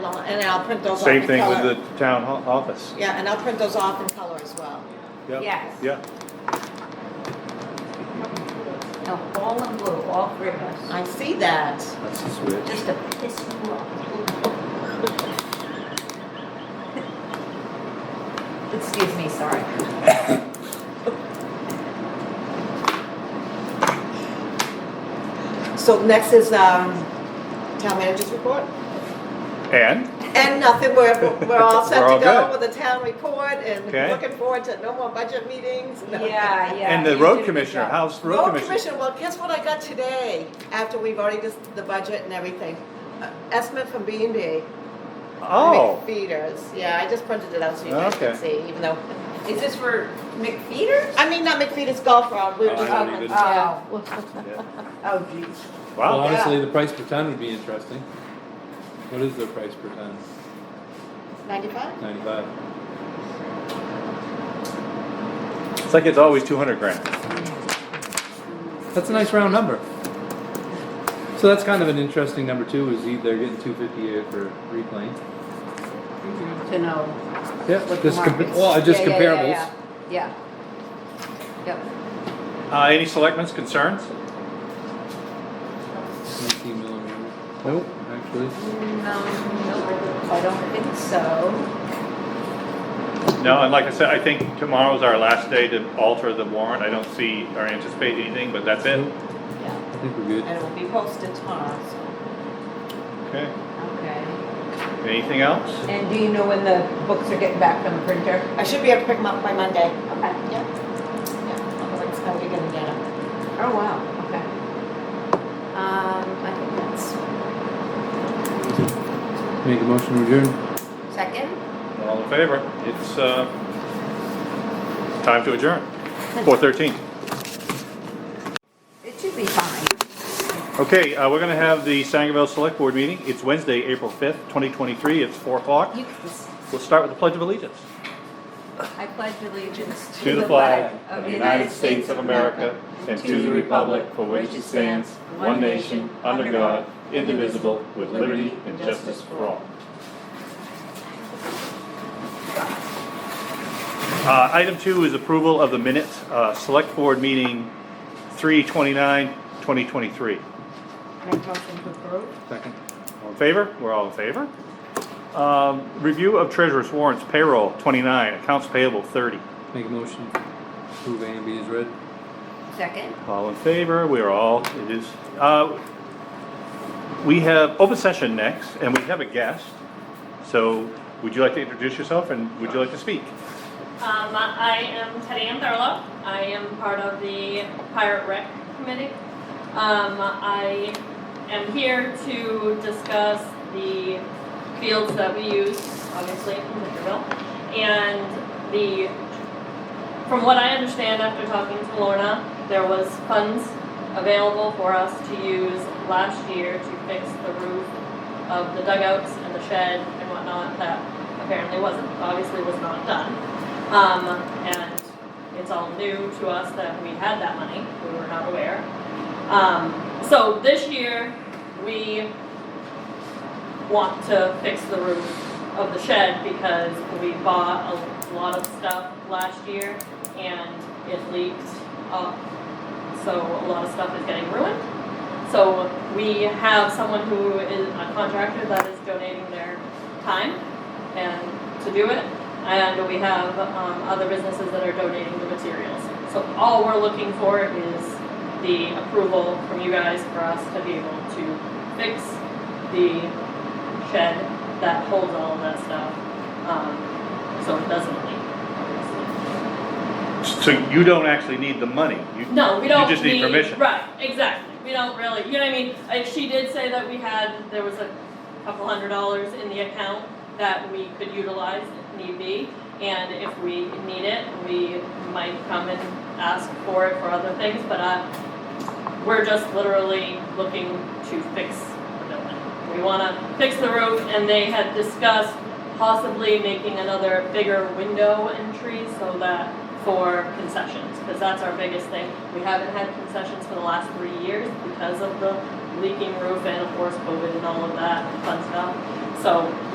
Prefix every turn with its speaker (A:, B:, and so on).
A: well, and I'll print those off in
B: Same thing with
A: color.
B: the town ho- office.
A: Yeah, and I'll print those off in color as well.
B: Yep.
C: Yes.
B: Yeah,
C: No, all in blue, all three of us.
A: I see that.
D: That's just weird.
C: Just to piss you off. Excuse me, sorry.
A: So next is, um, town manager's report.
B: and,
A: And nothing, we're, we're all set
B: We're all
A: to go
B: good.
A: with the town report and
B: Okay.
A: looking forward to no more budget meetings. no-
C: Yeah, yeah.
B: and
C: you
B: the
C: did a
B: road
C: good
B: commissioner,
C: job.
B: how's the road
A: Road
B: commissioner?
A: commission, well, guess what I got today, after we have already just, the budget and everything? Uh, Estimate from B and B.
B: Oh,
A: Feeders, yeah, I just printed it out so you guys can
B: Okay.
A: see, even though,
C: Is this for McFeeters?
A: I mean, not McFeeters Golf Round, we were
D: Oh,
A: just
D: I
A: talking.
D: don't need it.
A: yeah.
C: Oh geez.
E: Well,
B: wow,
E: honestly, the price per ton would be interesting. What is the price per ton?
C: Oh.
A: Ninety-five?
E: Ninety-five.
B: it's like it's always two hundred grand.
E: That's a nice round number. So that's kind of an interesting number too, is e- they're getting two fifty a for reclaim.
C: To know.
E: Yeah,
C: what the
E: just, compa-
C: market's-
E: well, just
C: Yeah, yeah, yeah,
E: comparables.
C: Yeah. yeah. Yep.
B: Uh, any selectmen's concerns?
E: 19 millimeter. Nope, actually.
C: Mm, No, I don't think so.
B: No, and like I said, I think tomorrow's our last day to alter the warrant, I don't see or anticipate anything, but that's it.
E: I think we're good.
A: And it will be posted tomorrow, so.
B: Okay,
C: Okay.
B: anything else?
C: And do you know when the books are getting back from the printer?
A: I should be able to pick them up by Monday.
C: Okay.
A: Yeah. Yeah, otherwise how are you gonna get them?
C: Oh, wow, okay. Um, I think that's.
E: Make a motion to adjourn.
C: Second?
B: All in favor? It's, uh, time to adjourn, four thirteen.
C: It should be fine.
B: Okay, uh, we're gonna have the Sangerville Select Board meeting, it's Wednesday, April fifth, twenty twenty-three, it's four o'clock.
C: You can just,
B: We'll start with the Pledge of Allegiance.
C: I pledge allegiance
B: To the flag of the United States of America and to the republic for which it stands, one nation, under God, indivisible, with liberty and justice for all. Uh, Item two is approval of the minutes, uh, Select Board Meeting 3/29/2023.
C: Make motion to approve?
E: Second.
B: All in favor? We're all in favor. Um, Review of treasurer's warrants, payroll 29, accounts payable 30.
E: Make a motion. Approve A and B is read.
C: Second?
B: All in favor, we are all, it is, uh, we have open session next, and we have a guest. So would you like to introduce yourself and would you like to speak?
F: Um, I am Teddy Amdarla. I am part of the Pirate Rec Committee. Um, I am here to discuss the fields that we use, obviously, in Victorville. And the, from what I understand after talking to Lorna, there was funds available for us to use last year to fix the roof of the dugouts and the shed and whatnot that apparently wasn't, obviously was not done. Um, and it's all new to us that we had that money, we were not aware. Um, so this year, we want to fix the roof of the shed because we bought a lot of stuff last year and it leaked up. So a lot of stuff is getting ruined. So we have someone who is a contractor that is donating their time and to do it. And we have um, other businesses that are donating the materials. So all we're looking for is the approval from you guys for us to be able to fix the shed that holds all of that stuff. Um, so it doesn't leak, obviously.
B: So you don't actually need the money. you-
F: No, we don't
B: You just need permission.
F: Right, exactly. We don't really, you know what I mean? Like, she did say that we had, there was a couple hundred dollars in the account that we could utilize if need be. And if we need it, we might come and ask for it for other things, but uh, we're just literally looking to fix the building. We wanna fix the roof and they had discussed possibly making another bigger window entry so that for concessions, because that's our biggest thing. We haven't had concessions for the last three years because of the leaking roof and of course COVID and all of that fun stuff. So